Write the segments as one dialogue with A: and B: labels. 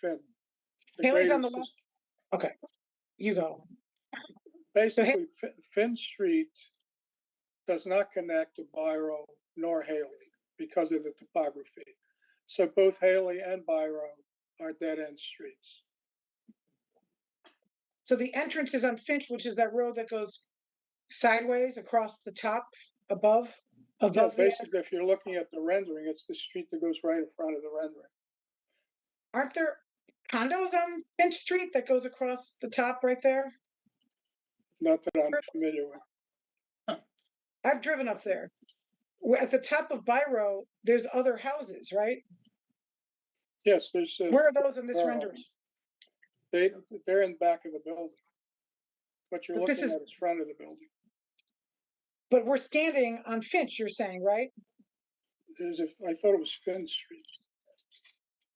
A: Fed. the
B: Haley's
A: greater-
B: on the left. Okay, you go.
A: Basically, Fi- Finn Street does not connect to Biro nor Haley because of the topography. So both Haley and Biro are dead-end streets.
B: So the entrance is on Finch, which is that road that goes sideways across the top above,
A: Yeah,
B: above the,
A: basically, if you're looking at the rendering, it's the street that goes right in front of the rendering.
B: aren't there condos on Finch Street that goes across the top right there?
A: Not that I'm familiar with.
B: I've driven up there. Wh- At the top of Biro, there's other houses, right?
A: Yes, there's. uh,
B: Where are those in this
A: Burrows.
B: rendering?
A: They, they're in back of the building. What you're
B: But
A: looking
B: this
A: at
B: is-
A: is front of the building.
B: But we're standing on Finch, you're saying, right?
A: Is if, I thought it was Finn Street.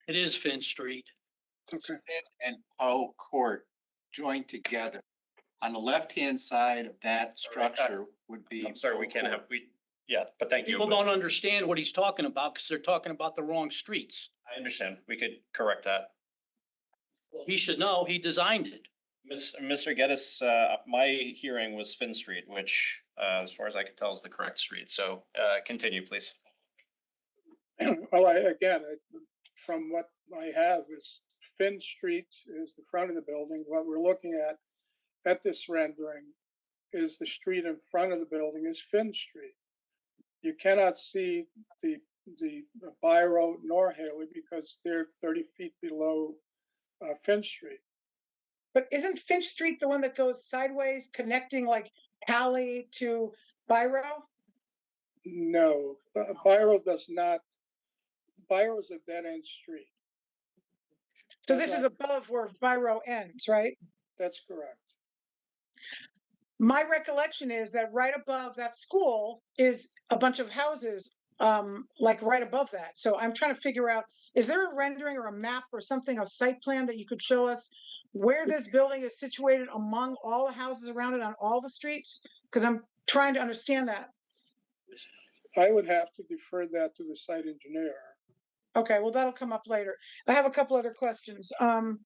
C: It is Finch Street.
A: Okay.
D: Smith and Poe Court joined together. On the left-hand side of that
E: Sorry, I-
D: structure would be.
E: I'm sorry, we
D: Poe
E: can't
D: Court.
E: have, we, yeah, but thank you.
C: People don't understand what he's talking about because they're talking about the wrong streets.
E: I understand. We could correct that.
C: He should know, he designed it.
E: Miss, Mr. Geddes, uh, my hearing was Finn Street, which, uh, as far as I can tell is the correct street. So, uh, continue, please.
A: Well, I, again, I- from what I have is Finn Street is the front of the building. What we're looking at, at this rendering, is the street in front of the building is Finn Street. You cannot see the, the Biro nor Haley because they're thirty feet below uh, Finn Street.
B: But isn't Finch Street the one that goes sideways, connecting like Alley to Biro?
A: No, uh, Biro does not, Biro is a dead-end street.
B: So
A: That's
B: this is
A: right.
B: above where Biro ends, right?
A: That's correct.
B: My recollection is that right above that school is a bunch of houses, um, like right above that. So I'm trying to figure out, is there a rendering or a map or something, a site plan that you could show us where this building is situated among all the houses around it on all the streets? Because I'm trying to understand that.
A: I would have to defer that to the site engineer.
B: Okay, well, that'll come up later. I have a couple other questions. Um,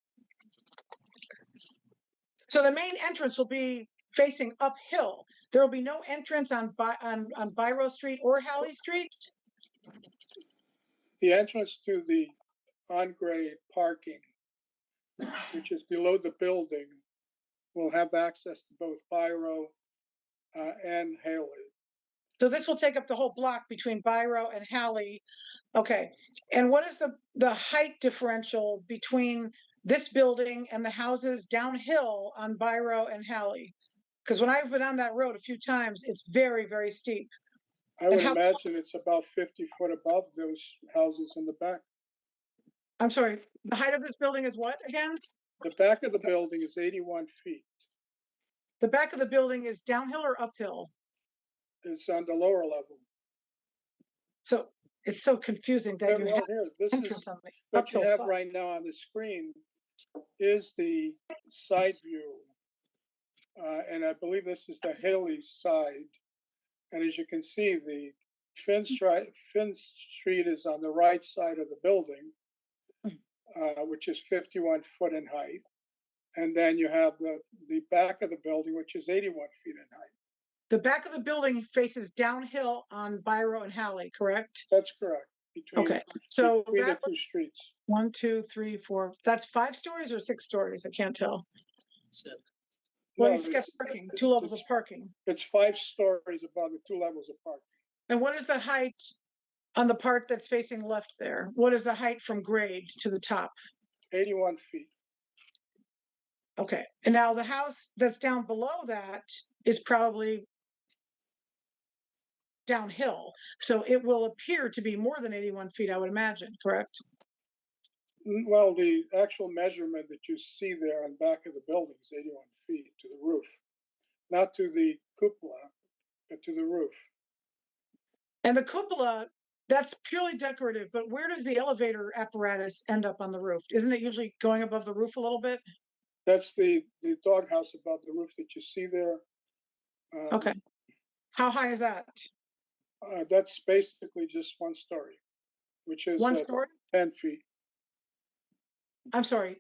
B: so the main entrance will be facing uphill. There will be no entrance on Bi- on on Biro Street or Hallie Street.
A: The entrance to the on-grade parking, which is below the building, will have access to both Biro uh, and Haley.
B: So this will take up the whole block between Biro and Hallie. Okay, and what is the the height differential between this building and the houses downhill on Biro and Hallie? Because when I've been on that road a few times, it's very very steep.
A: I
B: And
A: would
B: how
A: imagine it's about fifty foot above those houses in the back.
B: I'm sorry, the height of this building is what again?
A: The back of the building is eighty-one feet.
B: The back of the building is downhill or uphill?
A: It's on the lower level.
B: So it's so confusing that
A: And
B: you
A: right
B: have
A: here, this is
B: entrance on the
A: What you
B: uphill
A: have
B: side.
A: right now on the screen is the side view. Uh, and I believe this is the Haley side. And as you can see, the Finn
B: Mm.
A: Street, Finn Street is on the right side of the building,
B: Mm.
A: uh, which is fifty-one foot in height. And then you have the, the back of the building, which is eighty-one feet in height.
B: The back of the building faces downhill on Biro and Hallie, correct?
A: That's correct. between-
B: Okay, so
A: Between the
B: that-
A: two streets.
B: one, two, three, four, that's five stories or six stories? I can't tell.
A: No,
B: Well, he's got
A: it's-
B: parking,
A: it's-
B: two levels of
A: it's-
B: parking.
A: It's five stories above the two levels of parking.
B: And what is the height on the part that's facing left there? What is the height from grade to the top?
A: eighty-one feet.
B: Okay, and now the house that's down below that is probably downhill, so it will appear to be more than eighty-one feet, I would imagine, correct?
A: N- Well, the actual measurement that you see there on back of the building is eighty-one feet to the roof, not to the cupola, but to the roof.
B: And the cupola, that's purely decorative, but where does the elevator apparatus end up on the roof? Isn't it usually going above the roof a little bit?
A: That's the, the doghouse above the roof that you see there. Um,
B: Okay. How high is that?
A: Uh, that's basically just one story, which is
B: One
A: uh,
B: story?
A: ten feet.
B: I'm sorry,